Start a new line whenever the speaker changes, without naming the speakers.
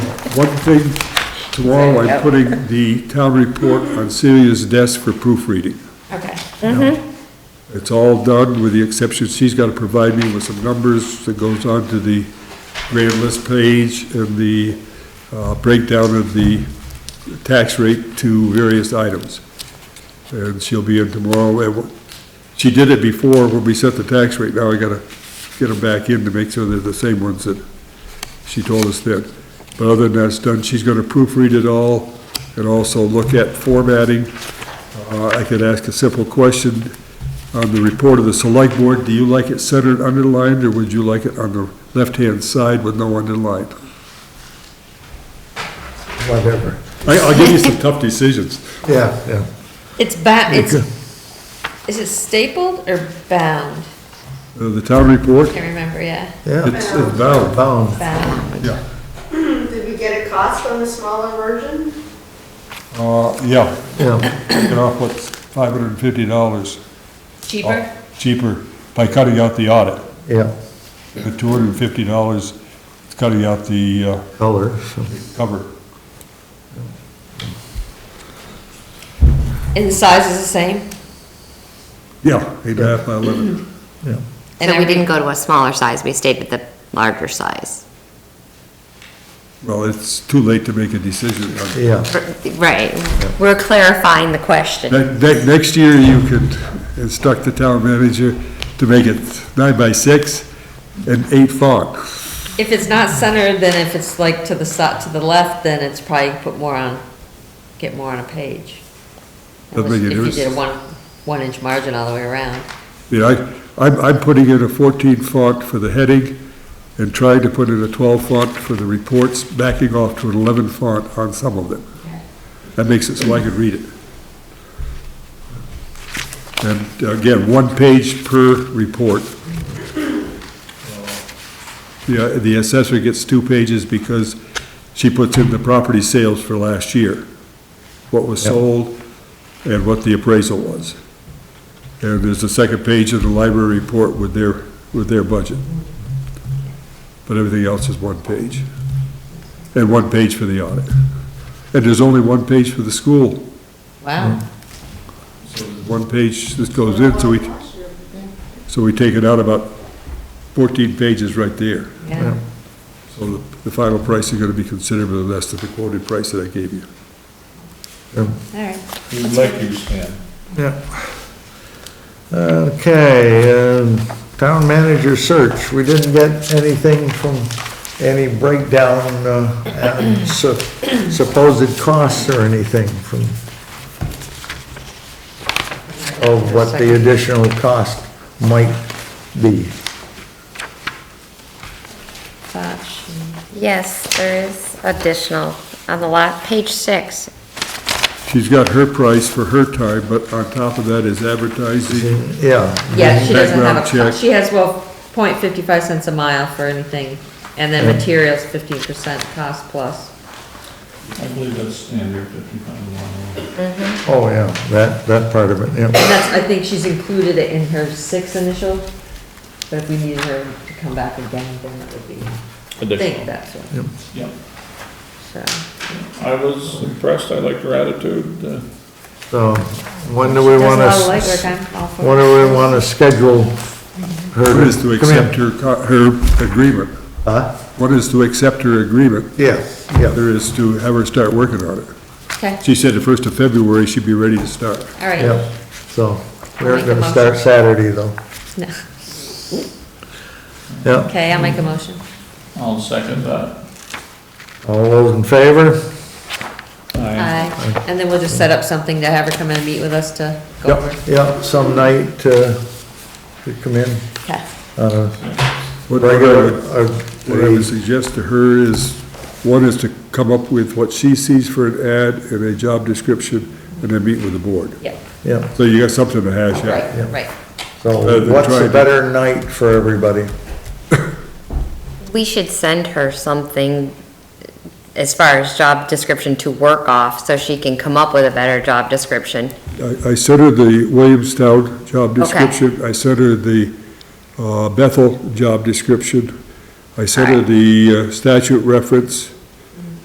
One thing, tomorrow I'm putting the town report on Celia's desk for proofreading.
Okay.
It's all done with the exception, she's gotta provide me with some numbers that goes on to the grand list page and the uh, breakdown of the tax rate to various items. And she'll be in tomorrow, and wha- she did it before when we set the tax rate, now I gotta get them back in to make sure they're the same ones that she told us then. But other than that's done, she's gonna proofread it all and also look at formatting. Uh, I could ask a simple question on the report of the select board, do you like it centered, underlined, or would you like it on the left-hand side with no underline?
whatever.
I, I'll give you some tough decisions.
Yeah, yeah.
It's bound, it's, is it stapled or bound?
Uh, The town report,
Can't remember, yeah,
Yeah.
it's it's valid,
Bound.
bound.
yeah.
Did we get a cost on the smaller version?
Uh, yeah,
Yeah,
taking off what's five hundred and fifty dollars
Cheaper?
cheaper by cutting out the audit.
yeah,
The two hundred and fifty dollars, it's cutting out the, uh,
color, so,
cover.
And the size is the same?
Yeah, eight and a half by eleven.
yeah.
And
So we
every-
didn't go to a smaller size, we stayed with the larger size.
Well, it's too late to make a decision on
Yeah,
Right, we're clarifying the question.
Ne- ne- Next year, you could instruct the town manager to make it nine by six and eight font.
If it's not centered, then if it's like to the side, to the left, then it's probably put more on, get more on a page.
Doesn't make any
Unless- If you did
difference.
a one, one inch margin all the way around.
You know, I, I'm, I'm putting in a fourteen font for the heading and trying to put in a twelve font for the reports, backing off to an eleven font on some of them. That makes it so I could read it. And uh, again, one page per report. The, uh, the assessor gets two pages because she puts in the property sales for last year, what was sold and what the appraisal was. And there's a second page of the library report with their, with their budget. But everything else is one page. And one page for the audit. And there's only one page for the school,
Wow.
one page that goes in, so we, so we take it out about fourteen pages right there.
Yeah.
So the, the final price is gonna be considerably less than the quoted price that I gave you.
All right.
You like you, Stan.
yeah. Okay, um, town manager search, we didn't get anything from any breakdown, uh, and su- supposed costs or anything from of what the additional cost might be.
Thatch.
Yes, there is additional on the lot, page six.
She's got her price for her time, but on top of that is advertising.
Yeah,
Yeah, she doesn't
Background
have a,
check.
she has, well, point fifty-five cents a mile for anything, and then materials fifteen percent cost plus.
I believe that's standard fifty-five mile.
oh, yeah, that, that part of it, yeah.
And that's, I think she's included it in her six initial, but if we needed her to come back again, then it would be, I think that's what,
Yeah.
so.
I was impressed. I liked her attitude. uh,
So, when do we
Does a
want to?
lot of legwork, I'm all for
When
it.
do we want to schedule her?
One is to
come in?
accept her, co- her agreement.
Huh?
One is to accept her agreement.
Yeah, yeah,
There is to have her start working on it.
Okay,
She said the first of February she'd be ready to start.
all right.
yeah. So, we
I'll
aren't
make
going
a
to start
motion.
Saturday, though.
No.
Yeah,
Okay, I'll make a motion.
I'll second that.
all those in favor?
I
Aye. And then we'll just set up something to have her come in and meet with us to go
Yep,
over.
yep, some night, uh, to come in,
Okay.
uh,
What I
regular,
would,
uh,
what I would suggest to her is, one is to come up with what she sees for an ad and a job description, and then meet with the board.
Yep,
yeah,
So you got something to hash out.
right, right.
Rather
so
than
what's
Uh, trying
a
to-
better night for everybody?
We should send her something as far as job description to work off, so she can come up with a better job description.
I, I sent her the Williamstown job description, I sent her the, uh, Bethel job description, I sent her
Alright.
the uh, statute reference,